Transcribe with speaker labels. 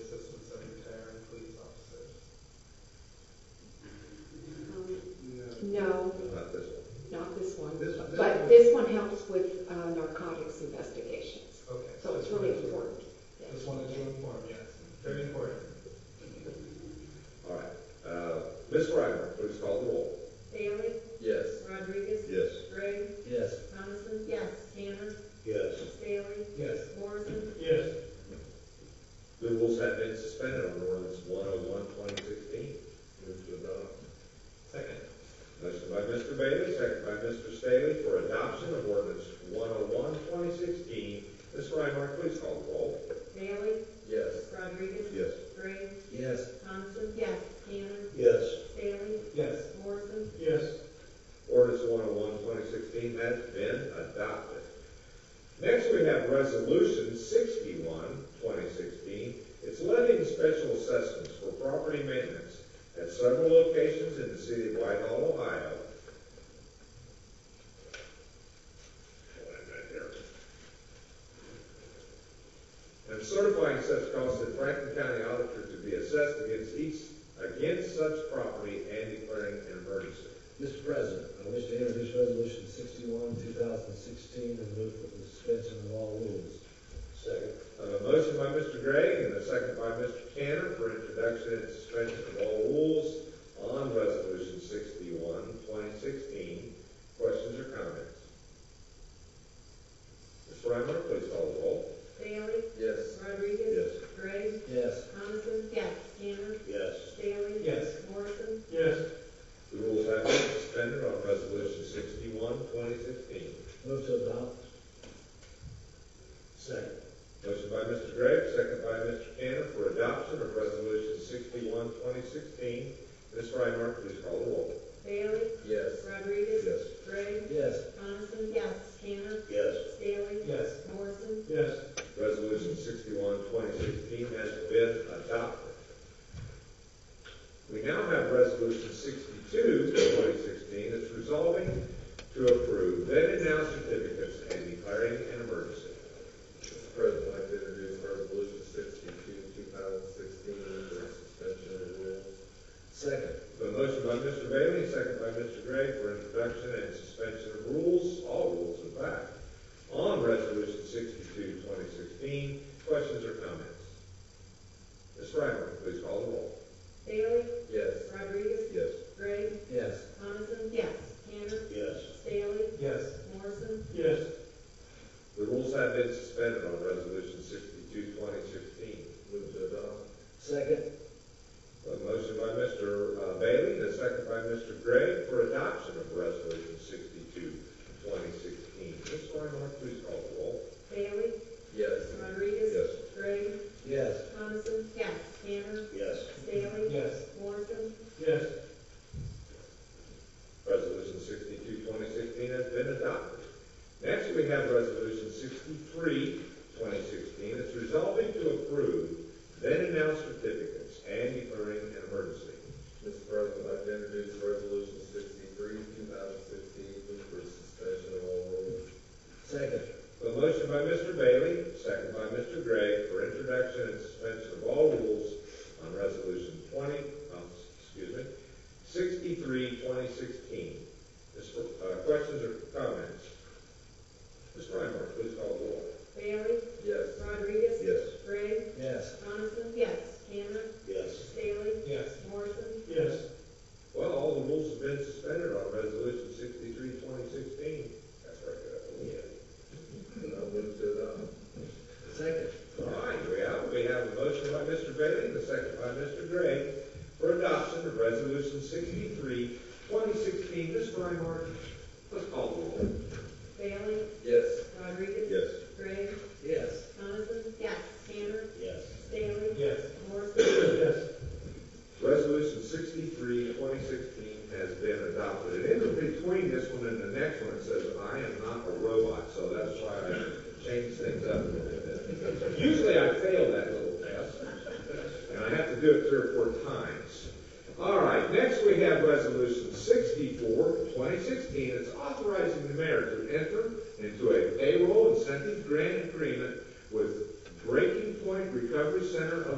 Speaker 1: Um, No,
Speaker 2: Not this one.
Speaker 1: not this one.
Speaker 2: This one, this
Speaker 1: But
Speaker 2: one.
Speaker 1: this one helps with uh, narcotics investigations,
Speaker 2: Okay.
Speaker 1: so it's really important.
Speaker 3: Just wanted to inform, yes, very important.
Speaker 2: All right. Uh, Ms. Frymer, please call the roll.
Speaker 4: Bailey?
Speaker 5: Yes.
Speaker 4: Rodriguez?
Speaker 2: Yes.
Speaker 4: Gray?
Speaker 5: Yes.
Speaker 4: Coniston? Yes. Tanner?
Speaker 2: Yes.
Speaker 4: Bailey?
Speaker 3: Yes.
Speaker 4: Morrison?
Speaker 3: Yes.
Speaker 2: The rules have been suspended on ordinance 101, 2016. Move to adopt.
Speaker 3: Second.
Speaker 2: Motion by Mr. Bailey, second by Mr. Staley for adoption of ordinance 101, 2016. Ms. Frymer, please call the roll.
Speaker 4: Bailey?
Speaker 5: Yes.
Speaker 4: Rodriguez?
Speaker 2: Yes.
Speaker 4: Gray?
Speaker 5: Yes.
Speaker 4: Coniston? Yes. Tanner?
Speaker 2: Yes.
Speaker 4: Bailey?
Speaker 3: Yes.
Speaker 4: Morrison?
Speaker 3: Yes.
Speaker 2: Ordinance 101, 2016 has been adopted. Next, we have Resolution 61, 2016. It's levying special assessments for property maintenance at several locations in the city of Whitehall, Ohio. And certifying such costs that Franklin County Auditor to be assessed against each, against such property and declaring an emergency.
Speaker 5: Mr. President, I wish to introduce Resolution 61, 2016, and move for the suspension of all rules.
Speaker 2: Second. A motion by Mr. Gregg and a second by Mr. Tanner for introduction and suspension of all rules on Resolution 61, 2016. Questions or comments? Ms. Frymer, please call the roll.
Speaker 4: Bailey?
Speaker 5: Yes.
Speaker 4: Rodriguez? Gray?
Speaker 5: Yes.
Speaker 4: Coniston? Yes. Tanner?
Speaker 2: Yes.
Speaker 4: Bailey?
Speaker 3: Yes.
Speaker 4: Morrison?
Speaker 3: Yes.
Speaker 2: The rules have been suspended on Resolution 61, 2016.
Speaker 5: Move to adopt.
Speaker 2: Second. Motion by Mr. Gregg, second by Mr. Tanner for adoption of Resolution 61, 2016. Ms. Frymer, please call the roll.
Speaker 4: Bailey?
Speaker 5: Yes.
Speaker 4: Rodriguez? Gray?
Speaker 5: Yes.
Speaker 4: Coniston? Yes. Tanner?
Speaker 2: Yes.
Speaker 4: Bailey?
Speaker 3: Yes.
Speaker 4: Morrison?
Speaker 3: Yes.
Speaker 2: Resolution 61, 2016 has been adopted. We now have Resolution 62, 2016, that's resolving to approve then and now certificates and declaring an emergency.
Speaker 6: Mr. President, I'd like to introduce Resolution 62, 2016, for suspension of rules.
Speaker 5: Second.
Speaker 2: A motion by Mr. Bailey, second by Mr. Gregg for introduction and suspension of rules, all rules in fact, on Resolution 62, 2016. Questions or comments? Ms. Frymer, please call the roll.
Speaker 4: Bailey?
Speaker 6: Yes.
Speaker 4: Rodriguez?
Speaker 2: Yes.
Speaker 4: Gray?
Speaker 5: Yes.
Speaker 4: Coniston? Yes. Tanner?
Speaker 2: Yes.
Speaker 4: Bailey?
Speaker 3: Yes.
Speaker 4: Morrison?
Speaker 3: Yes.
Speaker 2: The rules have been suspended on Resolution 62, 2016.
Speaker 6: Move to adopt.
Speaker 5: Second.
Speaker 2: A motion by Mr. Bailey and a second by Mr. Gregg for adoption of Resolution 62, 2016. Ms. Frymark, please call the roll.
Speaker 4: Bailey?
Speaker 6: Yes.
Speaker 4: Rodriguez? Gray?
Speaker 5: Yes.
Speaker 4: Coniston? Yes. Tanner?
Speaker 2: Yes.
Speaker 4: Bailey?
Speaker 3: Yes.
Speaker 4: Morrison?
Speaker 3: Yes.
Speaker 2: Resolution 62, 2016 has been adopted. Next, we have Resolution 63, 2016. It's resolving to approve then and now certificates and declaring an emergency.
Speaker 6: Mr. President, I'd like to introduce Resolution 63, 2016, for suspension of all rules.
Speaker 5: Second.
Speaker 2: A motion by Mr. Bailey, second by Mr. Gregg, for introduction and suspension of all rules on Resolution 20, um, excuse me, 63, 2016. This, uh, Questions or comments? Ms. Frymark, please call the roll.
Speaker 4: Bailey?
Speaker 6: Yes.
Speaker 4: Rodriguez?
Speaker 2: Yes.
Speaker 4: Gray?
Speaker 5: Yes.
Speaker 4: Coniston? Yes. Tanner?
Speaker 2: Yes.
Speaker 4: Bailey?
Speaker 3: Yes.
Speaker 4: Morrison?
Speaker 3: Yes.
Speaker 2: Well, all the rules have been suspended on Resolution 63, 2016.
Speaker 6: That's right, good. I Uh, move to adopt.
Speaker 5: Second.
Speaker 2: All right, we have, we have a motion by Mr. Bailey and a second by Mr. Gregg for adoption of Resolution 63, 2016. Ms. Frymark, let's call the roll.
Speaker 4: Bailey?
Speaker 6: Yes.
Speaker 4: Rodriguez?
Speaker 2: Yes.
Speaker 4: Gray?
Speaker 5: Yes.
Speaker 4: Coniston? Yes. Tanner?
Speaker 2: Yes.
Speaker 4: Bailey?
Speaker 3: Yes.
Speaker 4: Morrison?
Speaker 3: Yes.
Speaker 2: Resolution 63, 2016 has been adopted. And in between this one and the next one, it says, "I am not a robot," so that's why I changed things up a little bit. Usually I fail that little test, and I have to do it three or four times. All right, next we have Resolution 64, 2016. It's authorizing the mayor to enter into a payroll incentive grant agreement with Breaking Point Recovery Center of